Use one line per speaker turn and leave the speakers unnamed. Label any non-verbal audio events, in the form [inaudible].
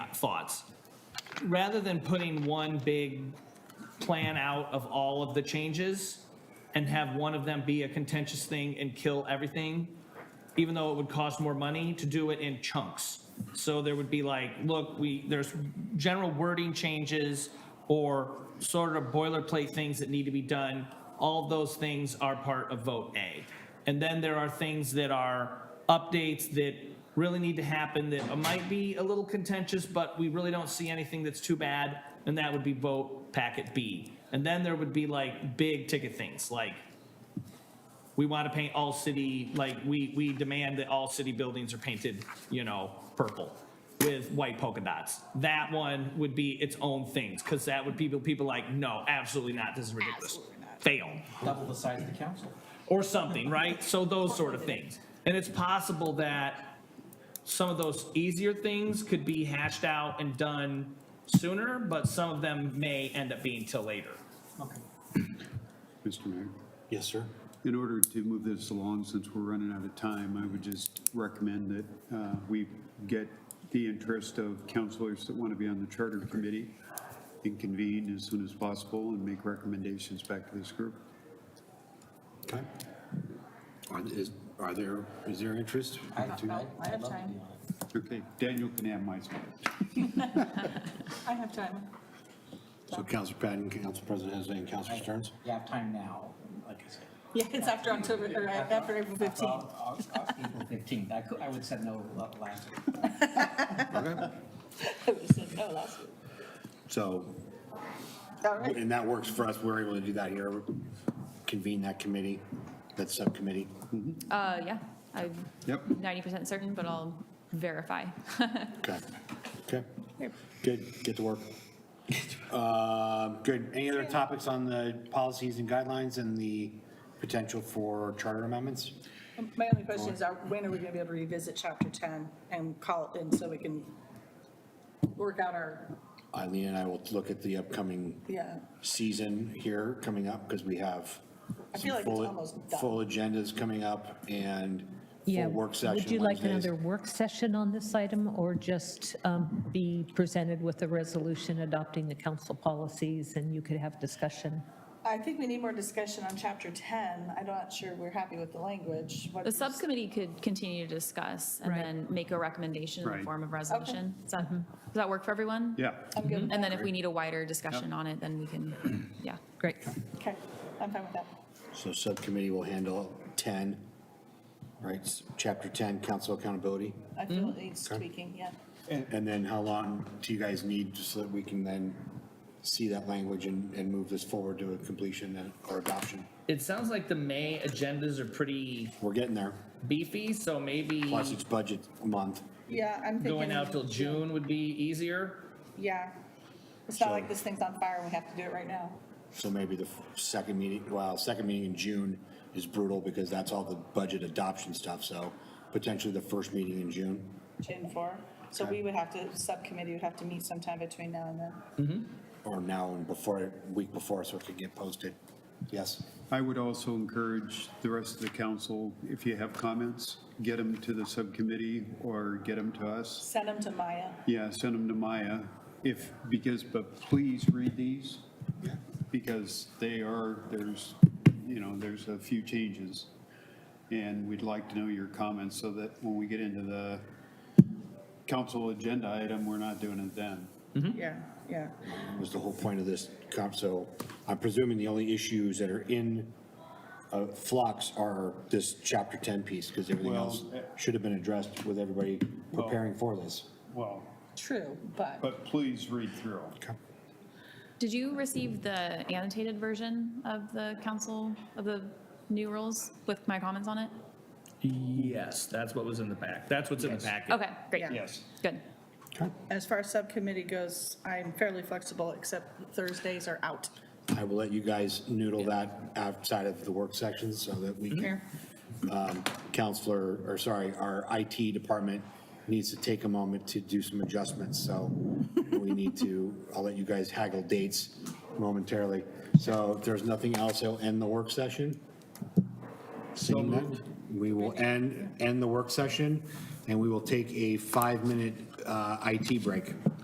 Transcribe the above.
uh, thoughts. Rather than putting one big plan out of all of the changes and have one of them be a contentious thing and kill everything, even though it would cost more money to do it in chunks. So there would be like, look, we, there's general wording changes or sort of boilerplate things that need to be done. All of those things are part of vote A. And then there are things that are updates that really need to happen that might be a little contentious, but we really don't see anything that's too bad. And that would be vote packet B. And then there would be like big ticket things like we want to paint all city, like, we, we demand that all city buildings are painted, you know, purple with white polka dots. That one would be its own things, because that would people, people like, no, absolutely not, this is ridiculous.
Absolutely not.
Fail,
double the size of the council.
or something, right? So those sort of things. And it's possible that some of those easier things could be hashed out and done sooner, but some of them may end up being till later.
Mr. Mayor,
Yes, sir.
in order to move this along, since we're running out of time, I would just recommend that uh, we get the interest of counselors that want to be on the Charter Committee and convene as soon as possible and make recommendations back to this group.
Okay. Are, is, are there, is there interest?
I
I have time.
Okay, Daniel can have my spot.
I have time.
So Council Patton, Council President Hezay, and Council Stearns?
You have time now, like I said.
Yeah, it's after October, or uh, after April 15th.
Well, uh, uh, April 15th, I could, I would said no uh, last week.
Okay.
I would've said no last week.
So,
All right,
and that works for us, we're able to do that here, convene that committee, that subcommittee.
Uh, yeah, I'm
Yep.
90% certain, but I'll verify. [laughs]
Okay, okay. Good, get to work. Um, Good, any other topics on the policies and guidelines and the potential for charter amendments?
my only question is, are- when are we gonna be able to revisit chapter 10 and call it in so we can work out our,
Eileen and I will look at the upcoming
yeah,
season here coming up because we have
I
some
feel like it's
full-
almost done.
Full agendas coming up and
Yeah.
full work session
Would you like
Wednesdays.
another work session on this item or just um, be presented with a resolution adopting the council policies and you could have discussion?
I think we need more discussion on chapter 10. I'm not sure we're happy with the language. What-
The subcommittee could continue to discuss and
Right.
then make a recommendation in the
Right.
form of resolution. Does that, does that work for everyone?
Yeah,
I'm good with
Mm-hmm. And
that.
then if we need a wider discussion on it, then
[clears throat]
we can, yeah.
Great.
Okay, I'm fine with that.
So subcommittee will handle 10, right, s- chapter 10, council accountability.
I
Mm-hmm.
feel it needs tweaking, yeah.
And then how long do you guys need just so that we can then see that language and, and move this forward to a completion and- or adoption?
It sounds like the May agendas are pretty
We're getting there,
beefy, so maybe.
plus it's budget month.
Yeah, I'm thinking.
going out till June would be easier.
Yeah. It's not like
So-
this thing's on fire and we have to do it right now.
So maybe the f- second meeting, well, second meeting in June is brutal because that's all the budget adoption stuff, so potentially the first meeting in June.
June 4. So we would have to, subcommittee would have to meet sometime between now and then.
or now and before, week before, so it could get posted. Yes,
I would also encourage the rest of the council, if you have comments, get them to the subcommittee or get them to us.
Send them to Maya.
Yeah, send them to Maya if, because, but please read these. Because they are, there's, you know, there's a few changes. And we'd like to know your comments so that when we get into the council agenda item, we're not doing it then.
Yeah, yeah.
was the whole point of this comp, so I'm presuming the only issues that are in uh, flux are this chapter 10 piece, because everything
Well,
else
eh.
should have been addressed with everybody preparing for this.
Well,
True, but
but please read through.
Did you receive the annotated version of the council, of the new rules with my comments on it?
Yes, that's what was in the pack. That's what's in the packet.
Okay, great,
Yeah.
Yes.
good.
Okay.
as far as subcommittee goes, I'm fairly flexible, except Thursdays are out.
I will let you guys noodle that outside of the work sections so that we can. Um, Counselor, or sorry, our IT department needs to take a moment to do some adjustments, so we need to, I'll let you guys haggle dates momentarily. So if there's nothing else, I'll end the work session. Seeing none, we will end, end the work session, and we will take a five-minute uh, IT break.